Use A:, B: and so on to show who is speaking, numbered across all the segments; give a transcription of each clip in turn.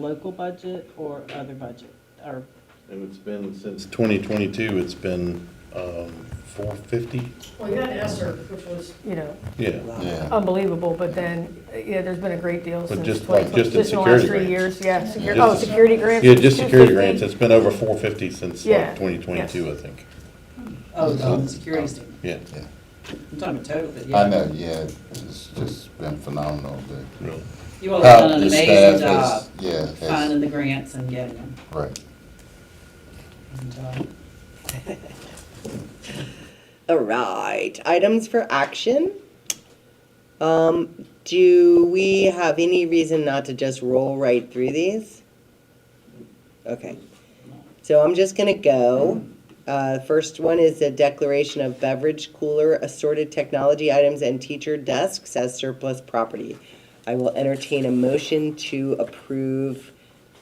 A: local budget or other budget, or,
B: And it's been since 2022, it's been um, 450?
C: Well, you had Esser, which was, you know,
B: Yeah.
D: Yeah.
C: Oh. unbelievable, but then, yeah, there's been a great deal since.
B: just
C: like,
B: like- just in
C: the last
B: security
C: three
B: grants.
C: years, yeah, security,
B: Just-
C: oh, security grants.
B: Yeah, just security
C: 250.
B: grants, it's been over 450 since
C: Yeah,
B: like 2022, I think.
E: Oh, the security's,
B: Yeah,
D: Yeah.
E: I'm talking about total, but yeah.
D: I know, yeah, it's just been phenomenal, the.
B: really.
E: You all have done an
D: the staff
E: amazing
D: has-
E: job
D: Yeah, has,
E: finding the grants and getting them.
D: right.
E: And, uh,
F: All right, items for action. Um, do we have any reason not to just roll right through these? Okay, so I'm just gonna go. Uh, first one is a declaration of beverage cooler, assorted technology items, and teacher desks as surplus property. I will entertain a motion to approve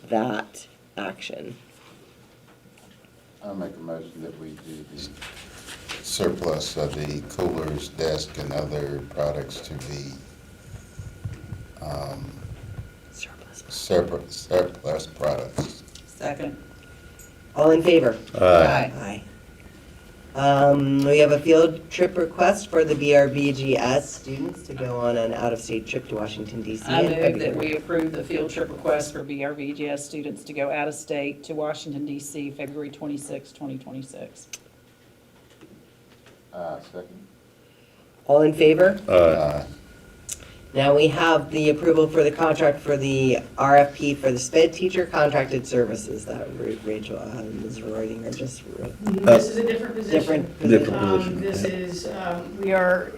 F: that action.
D: I make a motion that we do the surplus of the coolers, desk, and other products to the, um,
F: Surplus.
D: surplus, surplus products.
E: Second.
F: All in favor?
B: Aye.
F: Aye. Um, we have a field trip request for the BRBGS students to go on an out-of-state trip to Washington DC.
E: I
F: in
E: move that we
F: February.
E: approve the field trip request for BRVGS students to go out of state to Washington DC, February 26, 2026.
D: Uh, second.
F: All in favor?
B: Uh,
D: Uh,
F: Now we have the approval for the contract for the RFP for the SPED teacher contracted services that Ra- Rachel um, is writing or just wrote.
C: This is a different position.
F: Different
B: Different.
C: Um, This is, um, we are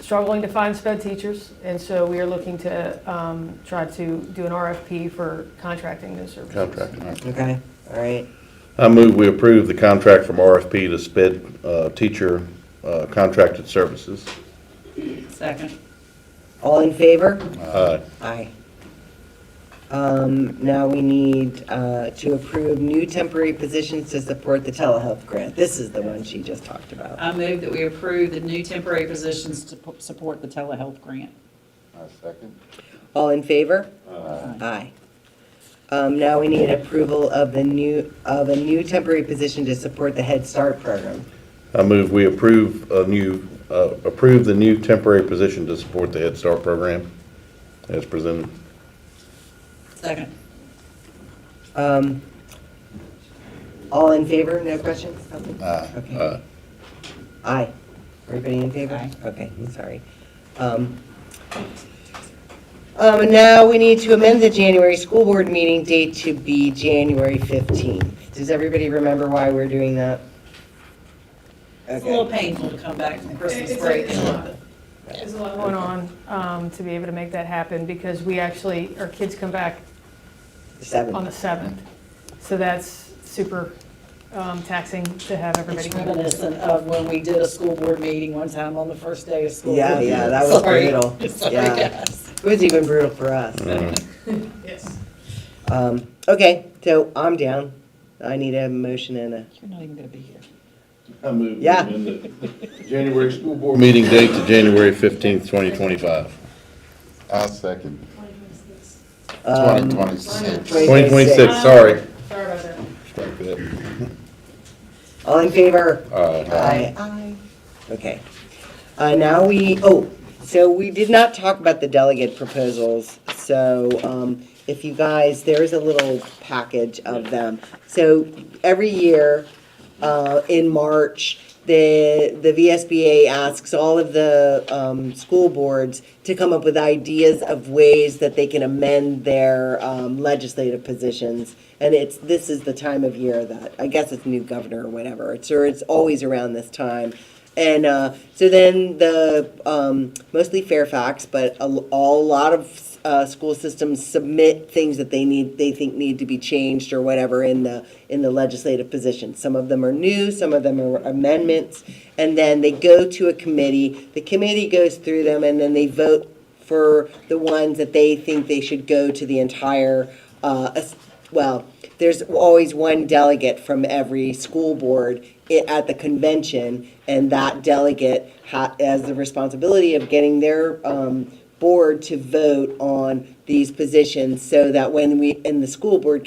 C: struggling to find sped teachers, and so we are looking to um, try to do an RFP for contracting those services.
B: Contract.
F: Okay, all right.
B: I move we approve the contract from RFP to SPED uh, teacher uh, contracted services.
E: Second.
F: All in favor?
B: Aye.
F: Aye. Um, now we need, uh, to approve new temporary positions to support the telehealth grant. This is the one she just talked about.
E: I move that we approve the new temporary positions to p- support the telehealth grant.
D: uh, second.
F: All in favor?
E: Aye.
F: Aye. Um, now we need approval of the new, of a new temporary position to support the Head Start program.
B: I move we approve a new, uh, approve the new temporary position to support the Head Start program as presented.
E: Second.
F: Um, all in favor? No questions? Nothing?
D: Aye.
F: Okay.
B: Aye.
F: Aye. Everybody in favor?
E: Aye.
F: Okay, sorry. Um, um, and now we need to amend the January school board meeting date to be January 15th. Does everybody remember why we're doing that?
E: It's a little
F: Okay.
E: painful to come back from Christmas
C: It's-
E: break.
C: it's a lot. There's a lot going on um, to be able to make that happen, because we actually, our kids come back on the
F: 7th.
C: 7th. So that's super um, taxing to have everybody.
E: It's
C: come.
E: reminiscent of when we did a school board meeting one time on the first day of school.
F: Yeah, yeah, that was
E: Sorry.
F: brutal.
E: Sorry,
F: Yeah.
E: guys.
F: It was even brutal for us.
C: Yes.
F: Um, okay, so I'm down. I need a motion and a,
E: You're not even gonna be here.
B: I move
F: Yeah.
B: January school board. Meeting date to January 15th, 2025.
D: Uh, second.
F: um,
D: Twenty twenty-six.
B: 2026, sorry.
C: Sorry about that.
B: Strike that.
F: all in favor?
B: Aye.
F: Aye. Aye. Okay. Uh, now we, oh, so we did not talk about the delegate proposals, so, um, if you guys, there's a little package of them. So every year, uh, in March, the, the VSBA asks all of the, um, school boards to come up with ideas of ways that they can amend their, um, legislative positions. And it's, this is the time of year that, I guess it's new governor or whatever, it's, or it's always around this time. And uh, so then the um, mostly Fairfax, but a, l- a lot of uh, school systems submit things that they need, they think need to be changed or whatever in the in the legislative position. Some of them are new, some of them are amendments, and then they go to a committee. The committee goes through them, and then they vote for the ones that they think they should go to the entire. Uh, as- well, there's always one delegate from every school board i- at the convention, and that delegate ha- has the responsibility of getting their um, board to vote on these positions so that when we, and the school board